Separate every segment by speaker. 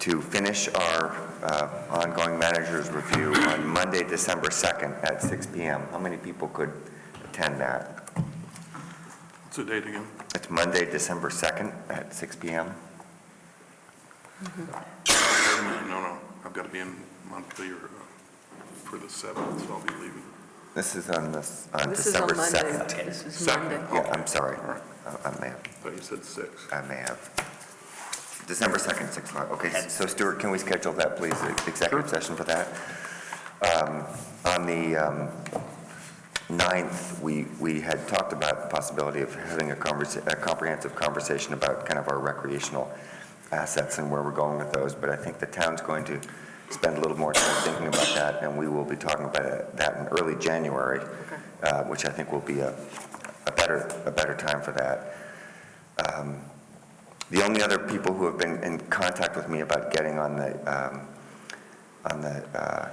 Speaker 1: to finish our uh, ongoing manager's review on Monday, December 2nd at 6 PM. How many people could attend that?
Speaker 2: What's the date again?
Speaker 1: It's Monday, December 2nd at 6 PM?
Speaker 2: Wait a minute, No, no, I've got to be in Montpelier uh, for the 7th, so I'll be leaving.
Speaker 1: This is on this, on
Speaker 3: This is on
Speaker 1: December
Speaker 3: Monday.
Speaker 1: 2nd.
Speaker 3: This is
Speaker 2: Uh, Second.
Speaker 3: Monday.
Speaker 1: Yeah, I'm sorry. Uh,
Speaker 2: All right.
Speaker 1: I I may have,
Speaker 2: Thought you said 6.
Speaker 1: I may have. December 2nd, 6 o'clock. Okay, so Stuart, can we schedule that, please, the executive session for that? Um, On the um, 9th, we, we had talked about the possibility of having a conversa, a comprehensive conversation about kind of our recreational assets and where we're going with those, but I think the town's going to spend a little more time thinking about that, and we will be talking about it- that in early January, uh, which I think will be a, a better, a better time for that. Um, The only other people who have been in contact with me about getting on the, um, on the uh,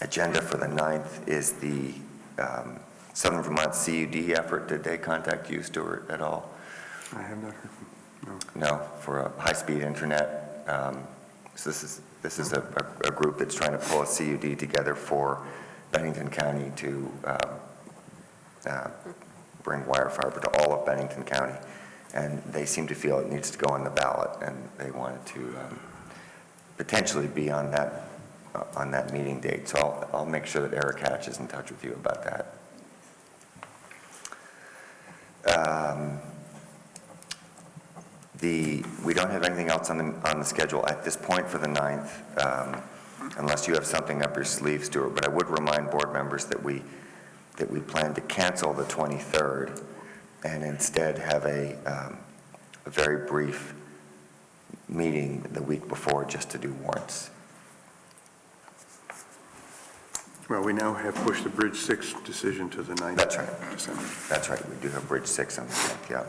Speaker 1: agenda for the 9th is the um, Southern Vermont CUD effort. Did they contact you, Stuart, at all?
Speaker 4: I have not heard.
Speaker 1: No, for a high-speed internet. um, So this is, this is a, a- a group that's trying to pull a CUD together for Bennington County to um, uh, bring wire fiber to all of Bennington County. And they seem to feel it needs to go on the ballot, and they wanted to um, potentially be on that, uh, on that meeting date. So I'll, I'll make sure that Eric Hatch is in touch with you about that. Um, the, we don't have anything else on the, on the schedule at this point for the 9th, um, unless you have something up your sleeve, Stuart, but I would remind board members that we, that we plan to cancel the 23rd and instead have a, um, a very brief meeting the week before just to do warrants.
Speaker 4: Well, we now have pushed the Bridge 6 decision to the 9th.
Speaker 1: That's right.
Speaker 4: December.
Speaker 1: That's right, we do have Bridge 6 on the 10th, yeah.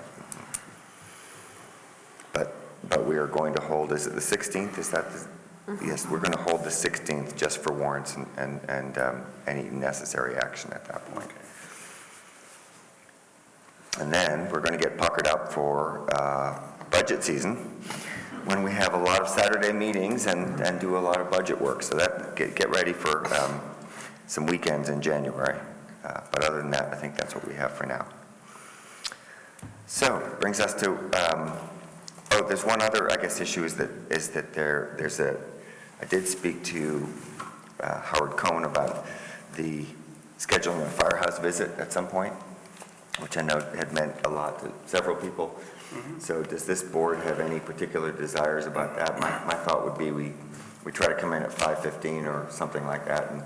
Speaker 1: But, but we are going to hold, is it the 16th? Is that, the- yes, we're going to hold the 16th just for warrants and, and and um, any necessary action at that point. And then we're going to get puckered up for uh, budget season, when we have a lot of Saturday meetings and, and do a lot of budget work. So that, get, get ready for um, some weekends in January. Uh, But other than that, I think that's what we have for now. So brings us to, um, oh, there's one other, I guess, issue is that, is that there, there's a, I did speak to uh, Howard Cohen about the scheduling of a firehouse visit at some point, which I know had meant a lot to several people.
Speaker 4: Mm-hmm.
Speaker 1: So does this board have any particular desires about that? My, my thought would be we, we try to come in at 5:15 or something like that and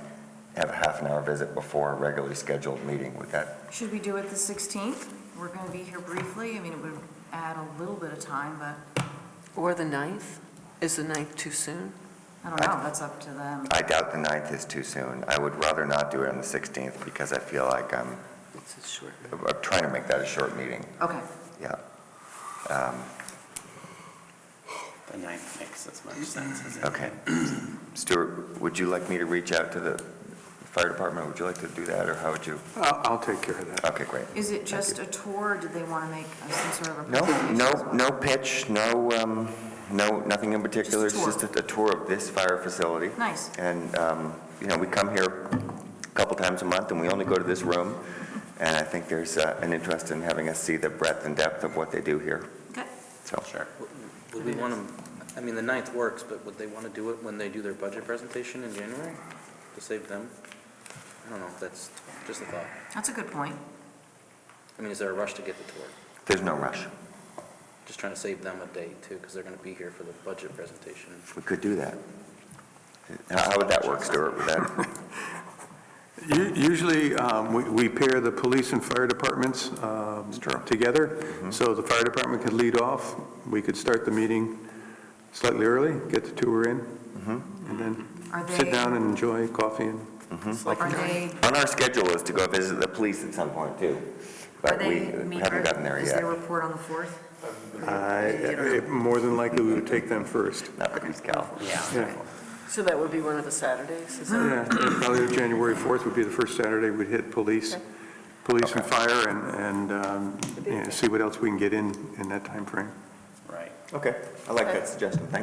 Speaker 1: have a half an hour visit before a regularly scheduled meeting. Would that,
Speaker 5: Should we do it the 16th? We're going to be here briefly. I mean, it would add a little bit of time, but
Speaker 3: Or the 9th? Is the 9th too soon?
Speaker 5: I don't know, that's up to them.
Speaker 1: I doubt the 9th is too soon. I would rather not do it on the 16th because I feel like I'm,
Speaker 3: It's a short.
Speaker 1: I'm trying to make that a short meeting,
Speaker 5: Okay,
Speaker 1: yeah. Um,
Speaker 6: The ninth makes as much sense as it.
Speaker 1: Okay. Stuart, would you like me to reach out to the fire department? Would you like to do that or how would you?
Speaker 4: I'll I'll take care of that.
Speaker 1: Okay, great.
Speaker 5: is it just a tour, or did they want to make uh, some sort of a
Speaker 1: No,
Speaker 5: presentation? as
Speaker 1: no,
Speaker 5: well?
Speaker 1: no pitch, no, um, no, nothing in particular. It's
Speaker 5: Just a
Speaker 1: just a a tour of this fire facility.
Speaker 5: Nice.
Speaker 1: And, um, you know, we come here a couple times a month, and we only go to this room. And I think there's uh, an interest in having us see the breadth and depth of what they do here,
Speaker 5: Okay,
Speaker 1: so.
Speaker 6: Sure.
Speaker 7: Would we want to, I mean, the ninth works, but would they want to do it when they do their budget presentation in January to save them? I don't know, that's just a thought.
Speaker 5: that's a good point.
Speaker 7: I mean, is there a rush to get the tour?
Speaker 1: There's no rush.
Speaker 7: Just trying to save them a day too, because they're going to be here for the budget presentation.
Speaker 1: We could do that. How how would that work, Stuart? Would that,
Speaker 4: U- Usually, um, we- we pair the police and fire departments um, together, so the fire department could lead off, we could start the meeting slightly early, get the tour in, and then
Speaker 5: Are
Speaker 4: sit
Speaker 5: they-
Speaker 4: down and enjoy coffee and...
Speaker 2: Mm-hmm.
Speaker 5: Are they,
Speaker 1: on our schedule is to go visit the police at some point, too. But
Speaker 5: are
Speaker 1: we
Speaker 5: they meet?
Speaker 1: haven't gotten there
Speaker 5: Is
Speaker 1: yet.
Speaker 5: their report on the 4th?
Speaker 4: I- I- More than likely, we would take them first.
Speaker 1: Not the police gal.
Speaker 4: Yeah,
Speaker 3: So that would be one of the Saturdays? is that-
Speaker 4: Yeah, probably January 4th would be the first Saturday we'd hit police, police and fire, and, and um, you know, see what else we can get in, in that timeframe.
Speaker 6: Right.
Speaker 1: Okay, I like that suggestion, thank